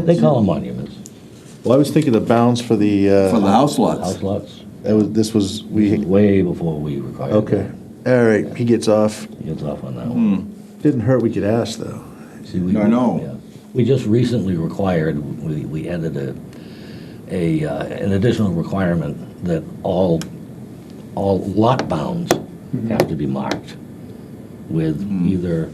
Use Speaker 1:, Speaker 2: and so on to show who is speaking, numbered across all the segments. Speaker 1: They- They call them monuments,
Speaker 2: Well, I was thinking the bounds for the,
Speaker 3: for the
Speaker 2: uh,
Speaker 3: house lots.
Speaker 1: house lots,
Speaker 2: that was, this was, we,
Speaker 1: way before we required that.
Speaker 2: okay. Hmm. All right, he gets off.
Speaker 1: He gets off on that one.
Speaker 2: Didn't hurt, we could ask, though.
Speaker 1: See, we-
Speaker 3: I know.
Speaker 1: yeah. We just recently required, we, we added a, a, uh, an additional requirement that all, all lot bounds have to be marked with either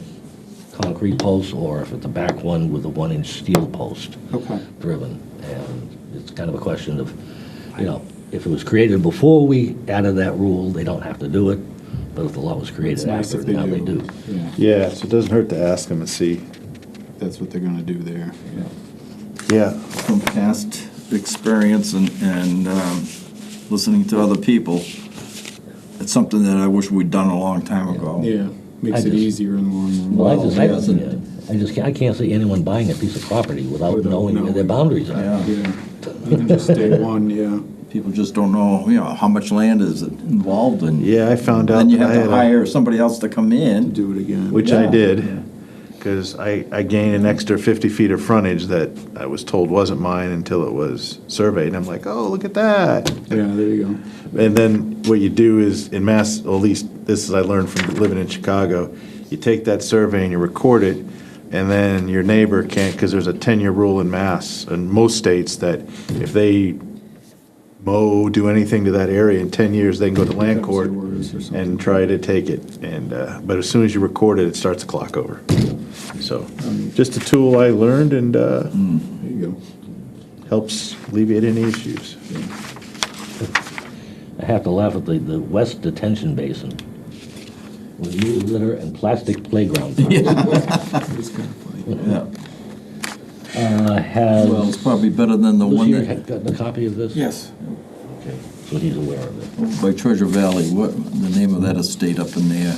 Speaker 1: concrete posts or if it's a back one with a one-inch steel post
Speaker 3: Okay.
Speaker 1: driven. And it's kind of a question of, you know, if it was created before we added that rule, they don't have to do it. But if the law was
Speaker 4: It's
Speaker 1: created
Speaker 4: nice
Speaker 1: after,
Speaker 4: if they
Speaker 1: now they do.
Speaker 4: do. Yeah,
Speaker 2: Yeah, so it doesn't hurt to ask him and see.
Speaker 4: that's what they're gonna do there. Yeah.
Speaker 2: Yeah,
Speaker 3: From past experience and, and um, listening to other people, it's something that I wish we'd done a long time ago.
Speaker 4: Yeah,
Speaker 1: I
Speaker 4: makes it
Speaker 1: just-
Speaker 4: easier in the long run.
Speaker 1: Well, I just, I,
Speaker 3: Well, yeah,
Speaker 1: yeah, I just, can't- I can't see anyone buying a piece of property without
Speaker 4: Without
Speaker 1: knowing where their
Speaker 4: knowing.
Speaker 1: boundaries are.
Speaker 3: Yeah.
Speaker 4: Yeah, even just day one, yeah.
Speaker 3: People just don't know, you know, how much land is involved in.
Speaker 2: yeah, I found out
Speaker 3: Then you
Speaker 2: that I
Speaker 3: have
Speaker 2: had
Speaker 3: to
Speaker 2: a,
Speaker 3: hire somebody else to come in.
Speaker 4: Do it again.
Speaker 2: which
Speaker 3: Yeah.
Speaker 2: I did, because I, I gained an extra 50 feet of frontage that I was told wasn't mine until it was surveyed. And I'm like, oh, look at that.
Speaker 4: Yeah, there you go.
Speaker 2: And then what you do is in Mass, or at least this is I learned from living in Chicago, you take that survey and you record it, and then your neighbor can't because there's a ten-year rule in Mass in most states that if they mow, do anything to that area in ten years, they can go to land court
Speaker 4: Words or something.
Speaker 2: and try to take it. And uh, but as soon as you record it, it starts the clock over. So just a tool I learned and uh,
Speaker 4: There you go.
Speaker 2: helps alleviate any issues.
Speaker 1: I have to laugh at the, the West Detention Basin with new litter and plastic playground parks,
Speaker 4: It's kind of funny.
Speaker 3: Yeah.
Speaker 1: uh,
Speaker 3: Well,
Speaker 1: has,
Speaker 3: it's probably better than the one
Speaker 1: Lucy
Speaker 3: that,
Speaker 1: had gotten a copy of this?
Speaker 3: yes,
Speaker 1: Okay, so he's aware of it.
Speaker 3: by Treasure Valley, what, the name of that estate up in there?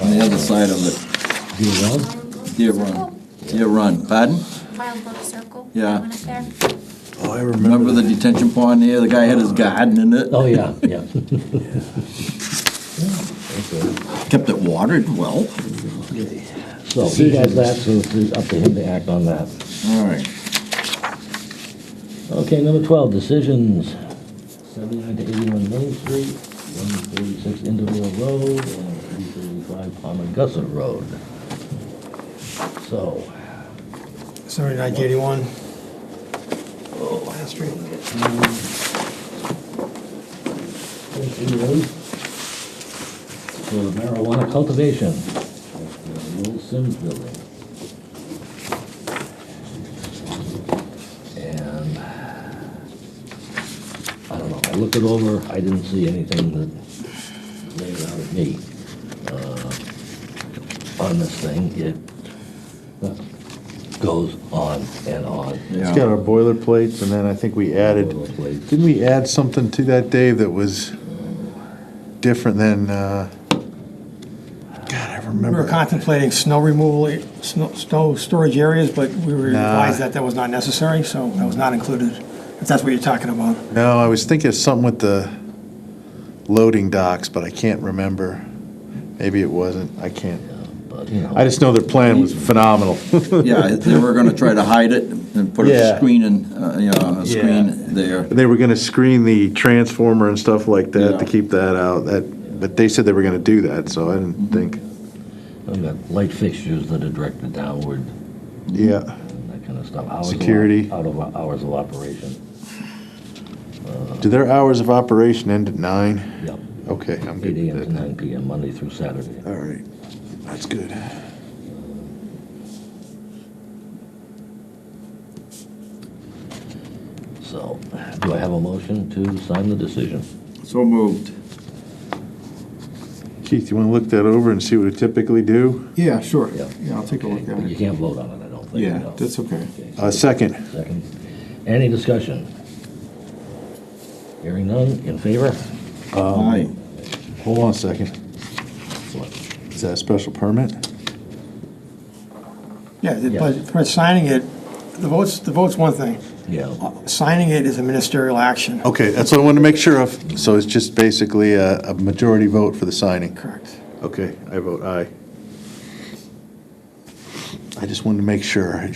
Speaker 3: On the other side of it.
Speaker 1: Do you know?
Speaker 3: Deer Run. Deer Run, pardon?
Speaker 5: Wild Book Circle.
Speaker 3: Yeah.
Speaker 5: Went up there.
Speaker 2: Oh, I remember.
Speaker 3: Remember the detention pond there, the guy had his garden in it,
Speaker 1: Oh, yeah, yeah.
Speaker 3: kept it watered well.
Speaker 1: So he has that, so it's up to him to act on that.
Speaker 3: All right.
Speaker 1: Okay, number 12, decisions, 79 to 81 Main Street, 146 Indoville Road, and 335 Palmagussit Road. So,
Speaker 6: Seventy-nine to eighty-one. Oh, Main Street.
Speaker 1: for marijuana cultivation, that's the Will Sims Building. And, I don't know, I looked it over, I didn't see anything that laid it out at me uh, on this thing. It uh, goes on and on.
Speaker 2: It's got our boilerplates, and then I think we added,
Speaker 1: Boilerplate.
Speaker 2: didn't we add something to that, Dave, that was different than, uh, God, I
Speaker 6: We were
Speaker 2: remember.
Speaker 6: contemplating snow removal, snow, snow storage areas, but we were advised that that was not necessary, so that was not included, if that's what you're talking about.
Speaker 2: No, I was thinking of something with the loading docks, but I can't remember. Maybe it wasn't, I can't.
Speaker 1: But, you know,
Speaker 2: I just know their plan was phenomenal.
Speaker 3: Yeah, they were gonna try to hide it and put
Speaker 2: Yeah.
Speaker 3: a screen in, uh, you know, a
Speaker 2: Yeah.
Speaker 3: screen there.
Speaker 2: They were gonna screen the transformer and stuff like that to
Speaker 3: Yeah.
Speaker 2: keep that out, that, but they said they were gonna do that, so I didn't think,
Speaker 1: I've got light fixtures that are directed downward.
Speaker 2: yeah.
Speaker 1: and that kind of stuff. Hours of op-
Speaker 2: Security.
Speaker 1: Out of, hours of operation.
Speaker 2: Do their hours of operation end at nine?
Speaker 1: Yep.
Speaker 2: Okay, I'm good
Speaker 1: Eight AM
Speaker 2: with
Speaker 1: to
Speaker 2: that.
Speaker 1: nine PM, Monday through Saturday.
Speaker 2: All right, that's good.
Speaker 1: So, do I have a motion to sign the decision?
Speaker 3: So moved.
Speaker 2: Keith, you want to look that over and see what it typically do?
Speaker 4: Yeah, sure.
Speaker 1: Yeah.
Speaker 4: Yeah, I'll take a look
Speaker 1: Okay,
Speaker 4: at
Speaker 1: but You
Speaker 4: it.
Speaker 1: can't vote on it, I don't think.
Speaker 4: Yeah,
Speaker 1: no.
Speaker 4: that's okay.
Speaker 1: Okay,
Speaker 2: Uh, second.
Speaker 1: Second. Any discussion? Hearing none, in favor?
Speaker 3: Aye.
Speaker 2: Hold on a second.
Speaker 1: What?
Speaker 2: Is that a special permit?
Speaker 6: Yeah,
Speaker 1: Yeah.
Speaker 6: but for signing it, the vote's, the vote's one thing,
Speaker 1: Yeah,
Speaker 6: signing it is a ministerial action.
Speaker 2: Okay, that's what I wanted to make sure of. So it's just basically a, a majority vote for the signing.
Speaker 6: Correct.
Speaker 2: Okay, I vote aye. I just wanted to make sure.